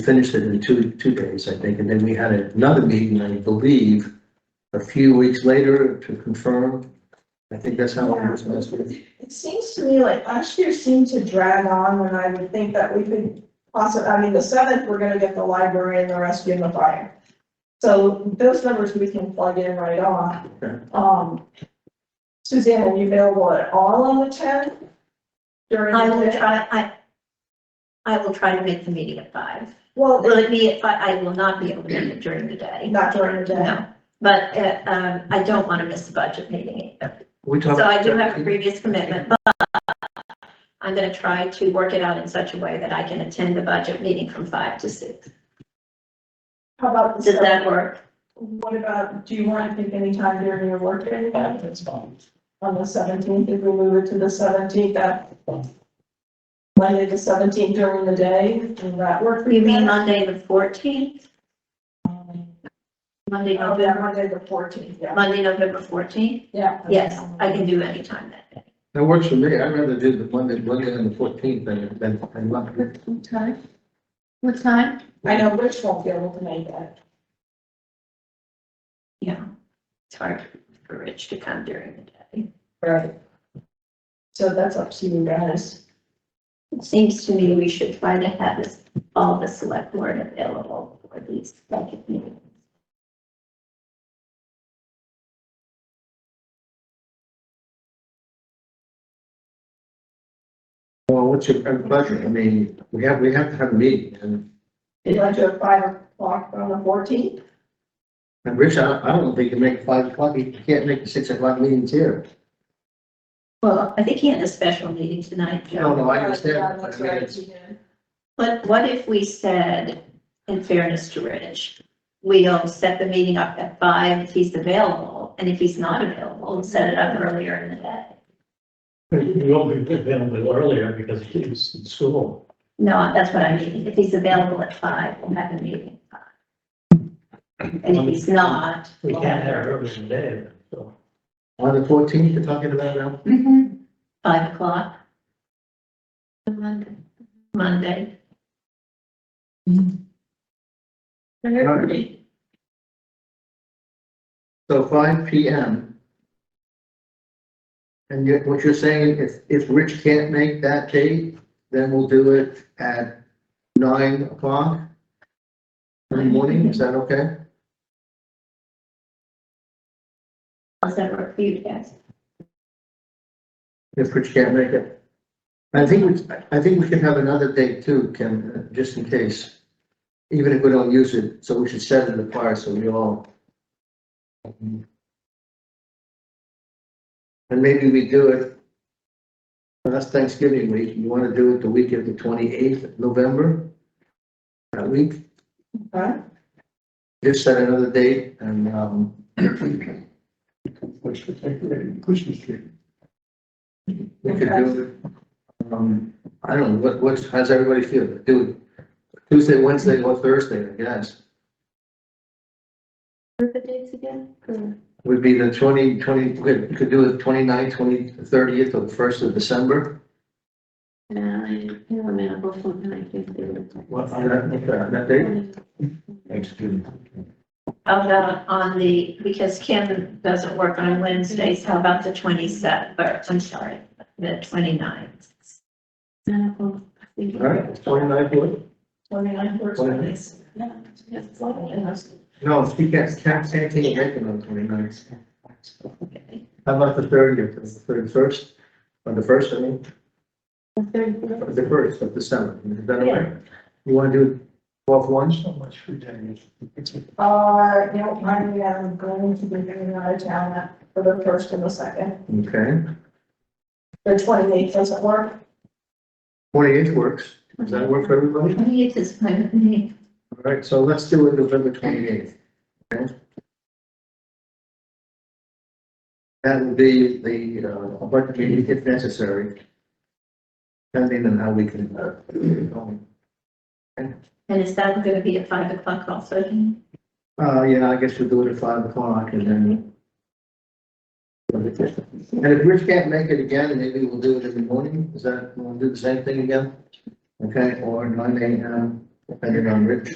finished it in two, two days, I think, and then we had another meeting, I believe, a few weeks later to confirm. I think that's how it was messed with. It seems to me like last year seemed to drag on when I would think that we could possibly, I mean, the seventh, we're gonna get the library and the rescue and the fire. So those numbers we can plug in right off. Okay. Um, Suzanne, are you available at all on the tenth? During I the will day? try, I, I will try to make the meeting at five. Well, Will it be at five? I will not be able to make it during the day. not during the day. No, but, uh, um, I don't want to miss the budget meeting. either. We talked. So I do have a previous commitment, but I'm going to try to work it out in such a way that I can attend the budget meeting from five to six. How about the Does that seventh? work? What about, do you want to pick any time during your work day? That's fine. on the seventeenth, if we move it to the seventeenth, that Monday the seventeenth during the day, will that work for you? You guys? mean Monday the fourteenth? Monday, Oh, yeah, November, Monday the fourteenth, yeah. Monday, November fourteenth? Yeah. Yes, I can do any time that day. That works for me. I'd rather do the Monday, Monday and the fourteenth than, than, than Monday. What time? What time? I know Rich won't be able to make that. Yeah, it's hard for Rich to come during the day. Right. So that's up to you guys. It seems to me we should try to have this, all the select board available for these budget meetings. Well, what's your pleasure? I mean, we have, we have to have a meeting and, You want to do it five o'clock on the fourteenth? and Rich, I, I don't think you can make five o'clock. You can't make the six o'clock meetings here. Well, I think he had a special meeting tonight, No, Joe. Oh. no, Oh, I understand. That's I mean, right. it's- you did. But what if we said, in fairness to Rich, we'll set the meeting up at five if he's available, and if he's not available, we'll set it up earlier in the day. You won't be put down a little earlier because he was in school. No, that's what I mean. If he's available at five, we'll have the meeting at five. And if he's not. We we'll can't have- have it earlier in the day, so. On the fourteenth, you're talking about now? Mhm. Five o'clock. Monday. Monday. right. So five P M. And yet what you're saying, if, if Rich can't make that date, then we'll do it at nine o'clock in the morning, is that okay? How's that work for you guys? If Rich can't make it. I think, we- I think we should have another date too, Kim, uh, just in case. Even if we don't use it, so we should set it apart, so we all. And maybe we do it. That's Thanksgiving week, you wanna do it the week of the twenty-eighth of November? That week, Okay. just set another date and, um, Which could take away the Christmas tree. We could do, it, um, I don't know, what, what's, how's everybody feel? Do it Tuesday, Wednesday, or Thursday, I guess, What are the dates again? Good. would be the twenty, twenty, we could, could do it twenty-nine, twenty, thirtieth, or the first of December. No, I- no, I'm available from nine to three. What, on that, on that date? Thanksgiving. How about on the, because Kim doesn't work on Wednesdays, how about the twenty-seventh, or, I'm sorry, the twenty-ninth? All right, twenty-ninth, what? Twenty-ninth or Twenty- twenty-eighth? Yeah. it's lovely, and that's- No, she can't, can't say anything in Lincoln on twenty-ninth. How about the thirtieth, the thirty-first, or the first, I mean, the first of December, is that all right? You wanna do twelve one? So much for Daniel. Uh, no, I am going to be going out of town that- for the first and the second. Okay, The twenty-eighth doesn't work. twenty-eighth works, does that work for everybody? Twenty-eighth is fine with me. All right, so let's do it November twenty-eighth. That will be the, uh, budget meeting if necessary. Depending on how we can, uh, um, And is that gonna be at five o'clock also? uh, yeah, I guess we'll do it at five o'clock and then. And if Rich can't make it again, maybe we'll do it in the morning, is that, we'll do the same thing again? Okay, or nine AM, depending on which